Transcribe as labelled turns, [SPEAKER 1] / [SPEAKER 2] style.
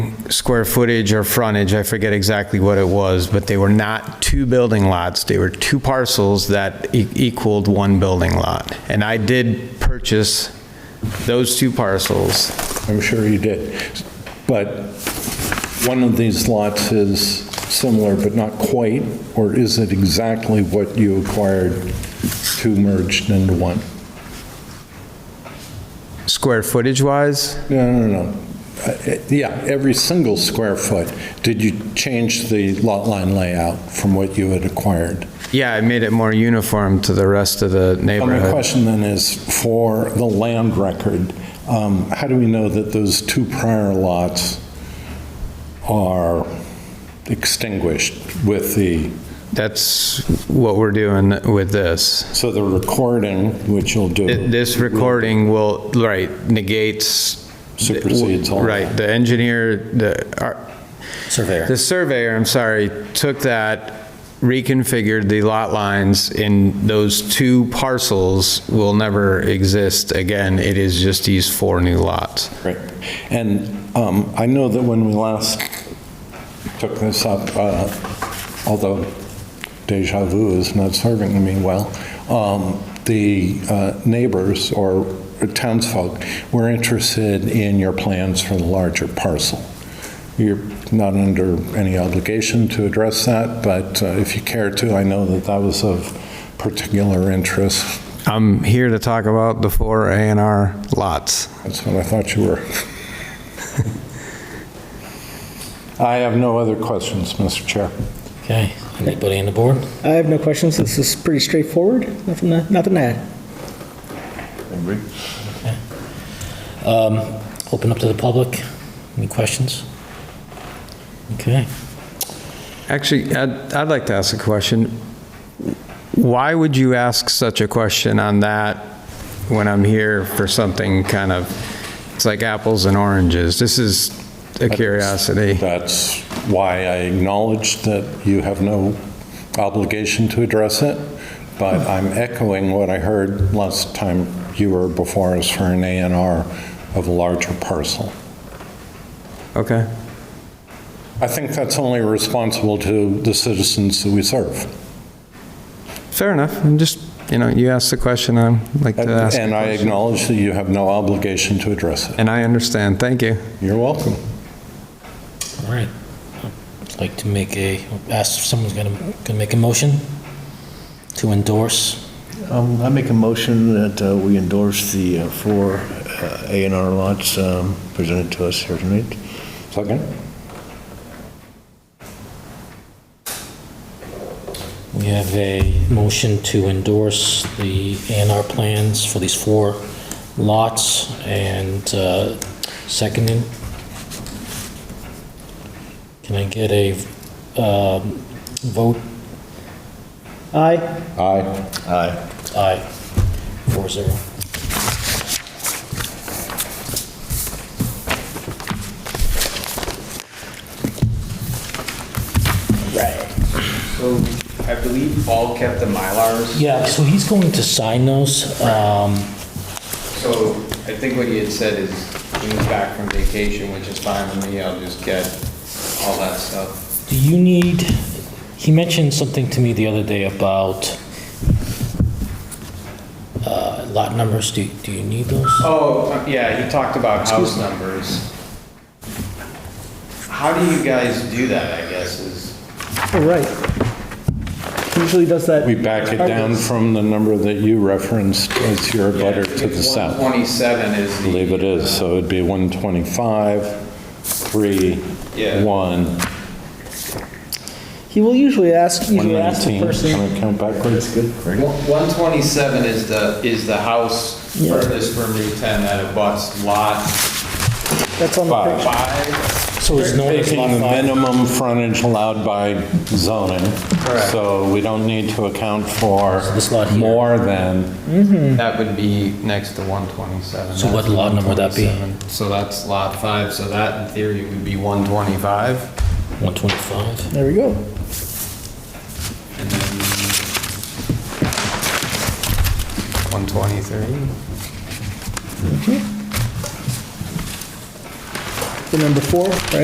[SPEAKER 1] square footage or frontage, I forget exactly what it was, but they were not two building lots, they were two parcels that e- equaled one building lot. And I did purchase those two parcels.
[SPEAKER 2] I'm sure you did. But one of these lots is similar, but not quite, or is it exactly what you acquired two merged into one?
[SPEAKER 1] Square footage-wise,
[SPEAKER 2] No, no, no. Uh, uh, Yeah, every single square foot. Did you change the lot line layout from what you had acquired?
[SPEAKER 1] yeah, I made it more uniform to the rest of the
[SPEAKER 2] Well, My
[SPEAKER 1] neighborhood.
[SPEAKER 2] question then is, for the land record, um, how do we know that those two prior lots are extinguished with the,
[SPEAKER 1] That's what we're doing with this.
[SPEAKER 2] so the recording, which you'll
[SPEAKER 1] Th-
[SPEAKER 2] do,
[SPEAKER 1] This recording will, right, negates.
[SPEAKER 2] Supersedes all that.
[SPEAKER 1] Right, the engineer, the, ar-
[SPEAKER 3] Surveyor.
[SPEAKER 1] the surveyor, I'm sorry, took that, reconfigured the lot lines in those two parcels will never exist again. It is just these four new lots.
[SPEAKER 2] Right. And um, I know that when we last took this up, uh, although deja vu is not serving me well, um, the uh, neighbors or townsfolk were interested in your plans for the larger parcel. You're not under any obligation to address that, but uh, if you care to, I know that that was of particular interest.
[SPEAKER 1] I'm here to talk about the four A and R lots.
[SPEAKER 2] That's what I thought you were. I have no other questions, Mr. Chair.
[SPEAKER 3] Okay. Anybody on the board?
[SPEAKER 4] I have no questions. This is pretty straightforward. Nothing, to- nothing to add.
[SPEAKER 3] Open up to the public. Any questions? Okay.
[SPEAKER 1] Actually, I'd, I'd like to ask a question. Why would you ask such a question on that when I'm here for something kind of, it's like apples and oranges? This is a curiosity.
[SPEAKER 2] That's why I acknowledge that you have no obligation to address it, but I'm echoing what I heard last time you were before us for an A and R of a larger parcel.
[SPEAKER 1] Okay.
[SPEAKER 2] I think that's only responsible to the citizens that we serve.
[SPEAKER 1] Fair enough. I'm just, you know, you asked the question, I'd like to ask.
[SPEAKER 2] And I acknowledge that you have no obligation to address it.
[SPEAKER 1] And I understand. Thank you.
[SPEAKER 2] You're welcome.
[SPEAKER 3] All right. I'd like to make a, ask if someone's gonna, gonna make a motion to endorse.
[SPEAKER 5] Um, I make a motion that uh, we endorse the uh, four uh, A and R lots um, presented to us here tonight.
[SPEAKER 2] Second?
[SPEAKER 3] We have a motion to endorse the A and R plans for these four lots and uh, seconded. Can I get a um, vote?
[SPEAKER 4] Aye.
[SPEAKER 2] Aye.
[SPEAKER 5] Aye.
[SPEAKER 3] Aye. Four zero.
[SPEAKER 6] So I believe Paul kept the Mylars.
[SPEAKER 3] Yeah, so he's going to sign those. Um,
[SPEAKER 6] So I think what he had said is he was back from vacation, which is fine with me. I'll just get all that stuff.
[SPEAKER 3] Do you need, he mentioned something to me the other day about uh, lot numbers. Do do you need those?
[SPEAKER 6] Oh, yeah, he talked about house numbers. How do you guys do that, I guess, is,
[SPEAKER 4] All right. Usually does that.
[SPEAKER 2] We back it down from the number that you referenced as your butter to the
[SPEAKER 6] It's
[SPEAKER 2] south.
[SPEAKER 6] 127 is
[SPEAKER 2] I
[SPEAKER 6] the.
[SPEAKER 2] believe it is, so it'd be 125, 3,
[SPEAKER 6] Yeah.
[SPEAKER 2] 1,
[SPEAKER 4] He will usually ask, usually ask the
[SPEAKER 2] 119.
[SPEAKER 4] person.
[SPEAKER 2] Can I count backwards?
[SPEAKER 6] One- 127 is the, is the house
[SPEAKER 4] Yeah.
[SPEAKER 6] furthest from Route 10 that abuts lot
[SPEAKER 4] That's on the
[SPEAKER 2] Five.
[SPEAKER 4] picture.
[SPEAKER 6] five.
[SPEAKER 3] So Oh, it's known as lot
[SPEAKER 2] Taking the
[SPEAKER 3] five.
[SPEAKER 2] minimum frontage allowed by zoning,
[SPEAKER 6] Correct.
[SPEAKER 2] so we don't need to account for
[SPEAKER 3] This lot here.
[SPEAKER 2] more than,
[SPEAKER 6] That would be next to 127.
[SPEAKER 3] So what
[SPEAKER 6] That's
[SPEAKER 3] lot number would that be?
[SPEAKER 6] 127. So that's lot five, so that in theory would be 125.
[SPEAKER 3] 125.
[SPEAKER 4] There we go.
[SPEAKER 6] and then 123.
[SPEAKER 4] The number four, right?